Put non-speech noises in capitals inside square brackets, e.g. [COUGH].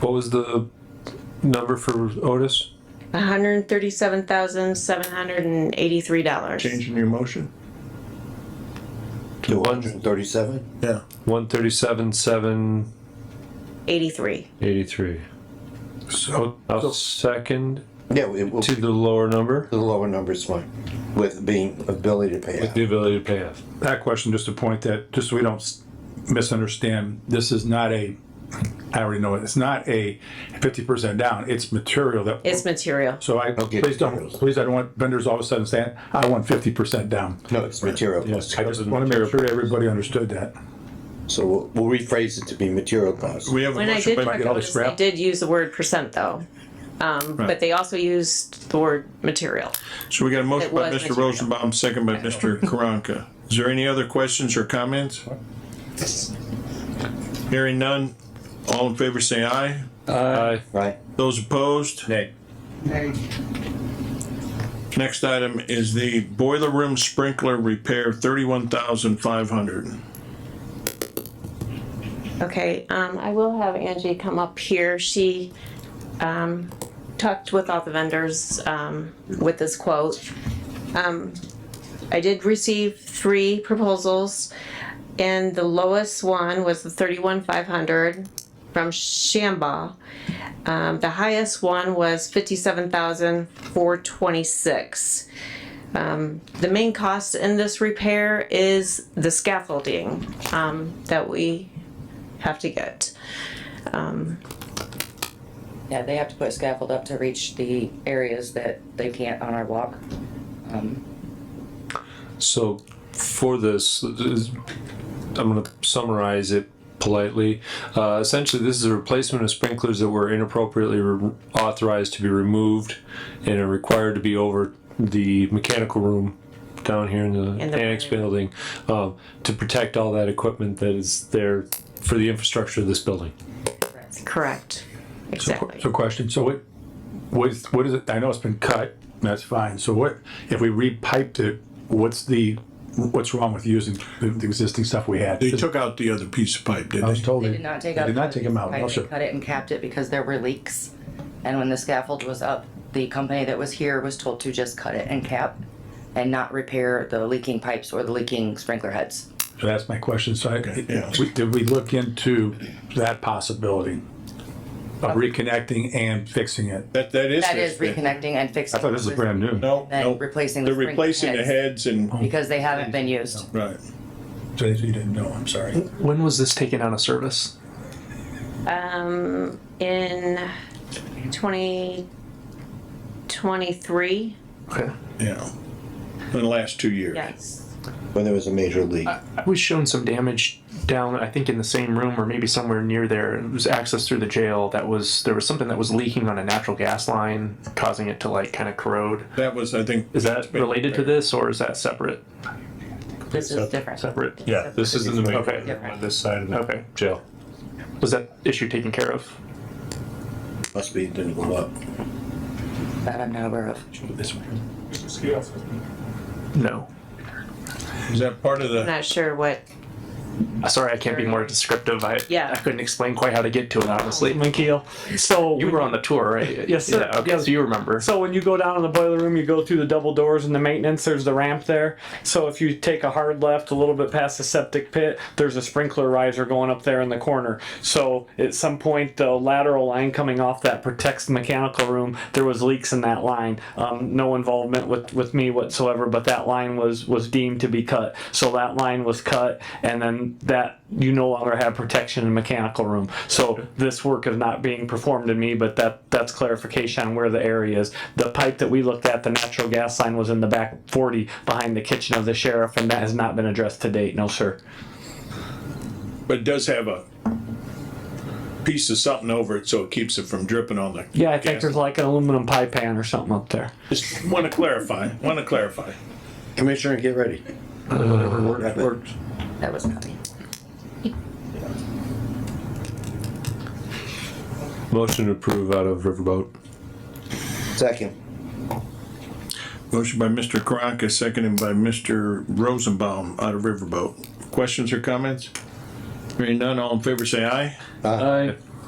What was the number for Otis? hundred and thirty-seven thousand, seven hundred and eighty-three dollars. Changing your motion? Two hundred and thirty-seven? Yeah. One thirty-seven, seven Eighty-three. eighty-three. So, I'll second Yeah, it will, to the the lower number lower number's fine, with being ability to pay with out. the ability to pay off. that question, just to point that, just so we don't s- misunderstand, this is not a, I already know it, it's not a fifty percent down, it's material that. It's material. So I, Okay. please don't, please, I don't want vendors all of a sudden saying, I want fifty percent down. No, it's material cost. I just want to make sure everybody understood that. So we'll- we'll rephrase it to be material cost. We have a When I motion did by talk get all about the this, they scrap? did use the word percent though. Um, but they also used the word material. So we got a motion It by was Mr. material. Rosenbaum, second by Mr. Karanka. Is there any other questions or comments? Hearing none, all in favor say aye. Aye. Right? Those opposed? Nay. Next item is the boiler room sprinkler repair, thirty-one thousand five hundred. Okay, um, I will have Angie come up here. She, um, talked with all the vendors, um, with this quote. Um, I did receive three proposals and the lowest one was the thirty-one five hundred from Shamba. Um, the highest one was fifty-seven thousand four twenty-six. Um, the main cost in this repair is the scaffolding, um, that we have to get. Yeah, they have to put scaffold up to reach the areas that they can't on our walk. So for this, this- I'm going to summarize it politely. Uh, essentially, this is a replacement of sprinklers that were inappropriately re- authorized to be removed and are required to be over the mechanical room down here in the In the- annex building um, to protect all that equipment that is there for the infrastructure of this building. Correct, exactly. So question, so what, what is, what is it, I know it's been cut, and that's fine, so what, if we repiped it, what's the, what's wrong with using the the existing stuff we had? They took out the other piece of pipe, I didn't was they? told. They did not take they out. Did not take them out, Right, no, they sir. Cut it and capped it because there were leaks. And when the scaffold was up, the company that was here was told to just cut it and cap and not repair the leaking pipes or the leaking sprinkler heads. So that's my question, so yeah. I, we- did we look into that possibility of reconnecting and fixing it? That, that is. That is reconnecting and fixing. I thought this was brand new. No, And no, replacing the they're sprinkler replacing the heads and, Because they haven't been used. right. So you didn't know, I'm sorry. When was this taken out of service? Um, in twenty twenty-three? Okay. Yeah. In the last two years. Yes. When there was a major leak. I was shown some damage down, I think, in the same room or maybe somewhere near there. It was access through the jail. That was there was something that was leaking on a natural gas line, causing it to like kind of corrode. That was, I think. Is that related to this or is that separate? This is different. Separate. Yeah, this is in the main Okay. on this side of the Okay. jail. Was that issue taken care of? Must be, didn't go up. That I'm not aware of. No. Is that part of the? Not sure what, Uh, Sorry, I can't be more descriptive. I Yeah. I couldn't explain quite how to get to it honestly, Mikhail. Oh, So You were on the tour, right? [LAUGHS] Yes, sir. Yeah, okay, so you remember. So when you go down in the boiler room, you go through the double doors and the maintenance. There's the ramp there. So if you take a hard left a little bit past the septic pit, there's a sprinkler riser going up there in the corner. So at some point, uh, the lateral line coming off that protects the mechanical room. There was leaks in that line. Um, no involvement with with me whatsoever, but that line was was deemed to be cut. So that line was cut, and then that you no longer have protection in the mechanical room. So this work is not being performed in me, but that that's clarification on where the area is. The pipe that we looked at, the natural gas line, was in the back forty behind the kitchen of the sheriff, and that has not been addressed to date. No, sir. But it does have a piece of something over it, so it keeps it from dripping on the. Yeah, I think gas. there's like an aluminum pie pan or something up there. Just want to clarify, want to clarify. Commissioner, get ready. That was not me. Motion to approve out of Riverboat. Second. Motion by Mr. Karanka, seconded by Mr. Rosenbaum out of Riverboat. Questions or comments? Hearing none, all in favor say aye. Aye.